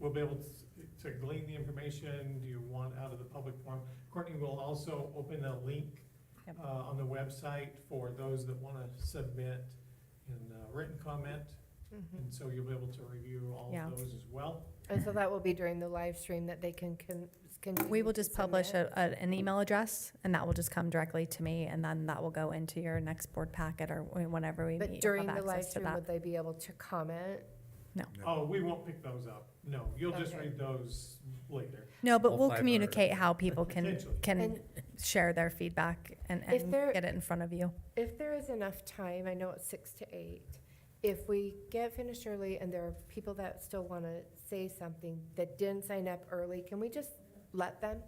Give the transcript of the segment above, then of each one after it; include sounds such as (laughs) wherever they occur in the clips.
will be able to- to glean the information you want out of the public forum. Courtney will also open a link Yep. uh, on the website for those that want to submit in uh, written comment. And so you'll be able to review all Yeah. of those as well. Mm-hmm. And so that will be during the live stream that they can, can, continue We will to just publish submit? a, a- an email address, and that will just come directly to me, and then that will go into your next board packet or wh- whenever we meet. But you'll during have the live access to stream, that. would they be able to comment? Oh, we won't pick those up. No, you'll just Okay. read those later. No, but All we'll five are- communicate how people can, Potentially. can And share their feedback and, If and there- get it in front of you. if there is enough time, I know it's six to eight, if we get finished early and there are people that still want to say something that didn't sign up early, can we just let them?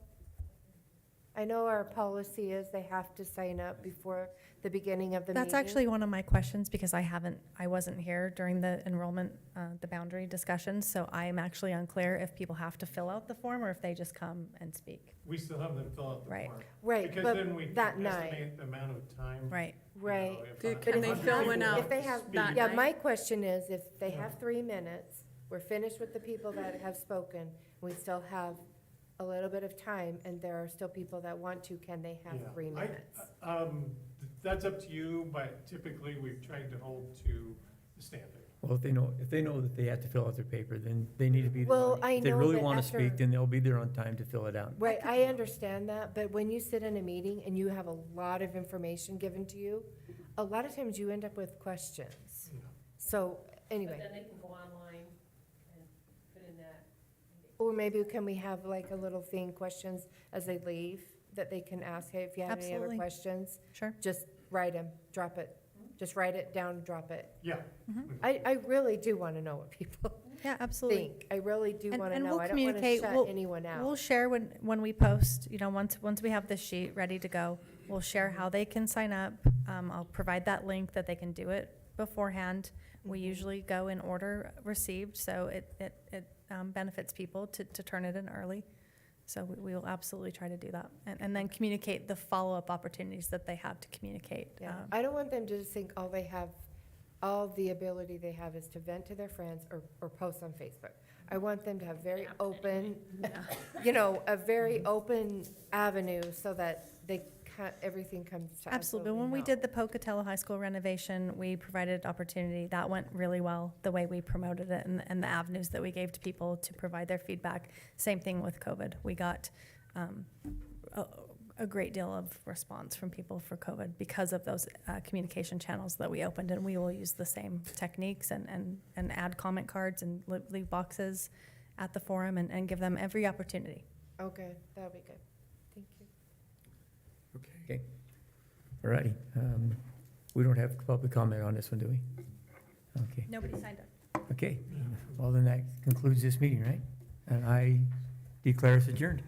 I know our policy is they have to sign up before the beginning of the meeting. That's actually one of my questions, because I haven't, I wasn't here during the enrollment, uh, the boundary discussion, so I am actually unclear if people have to fill out the form or if they just come and speak. We still have them fill out the Right. form. Right, Because but, then we that can night. estimate the amount of time. Right. you know, right. if Dude, I- can if they I'm fill able one to out If they have- speak, that Yeah, night? my question is, if they have three minutes, we're finished with the people that have spoken, we still have a little bit of time, and there are still people that want to, can they have Yeah. three I- minutes? Um, th- that's up to you, but typically we've tried to hold to the standard. Well, if they know, if they know that they have to fill out their paper, then they need to be there. Well, on- I If they know really that want to after- speak, then they'll be there on time to fill it out. Right, I understand that, but when you sit in a meeting and you have a lot of information given to you, a lot of times you end up with questions. Yeah. So, But anyway, then they can go online and put in that. or maybe can we have like a little thing, questions as they leave, that they can ask, hey, if you have any other Absolutely. questions? Sure. just write them, drop it, Hmm? just write it down, drop it. Yeah. I, I really do want to know what people Yeah, absolutely. think. I really do And- want to and know. we'll I don't want to communicate. shut We'll- anyone We'll out. share when, when we post, you know, once, once we have this sheet ready to go, we'll share how they can sign up. Um, I'll provide that link that they can do it beforehand. We Mhm. usually go in order received, so it, it, it um, benefits people to, to turn it in early. So we, we will absolutely try to do that. And, and then communicate the follow-up opportunities that they have to communicate. Yeah. um, I don't want them to just think all they have, all the ability they have is to vent to their friends or, or post on Facebook. I want them to have very (laughs) open, you know, a Mm-hmm. very open avenue so that they, ca- everything comes to us. so Absolutely. When we know. did the Pocatello High School renovation, we provided opportunity. That went really well, the way we promoted it and, and the avenues that we gave to people to provide their feedback. Same thing with COVID. We got um, a, a great deal of response from people for COVID because of those uh, communication channels that we opened. And we will use the same techniques and, and, and add comment cards and li- leave boxes at the forum and, and give them every opportunity. Okay, that'll be good. Thank you. Okay. All righty. Um, We don't have public comment on this one, do we? Okay, Nobody signed up. okay. Yeah. Well, then that concludes this meeting, right? And I declare us adjourned.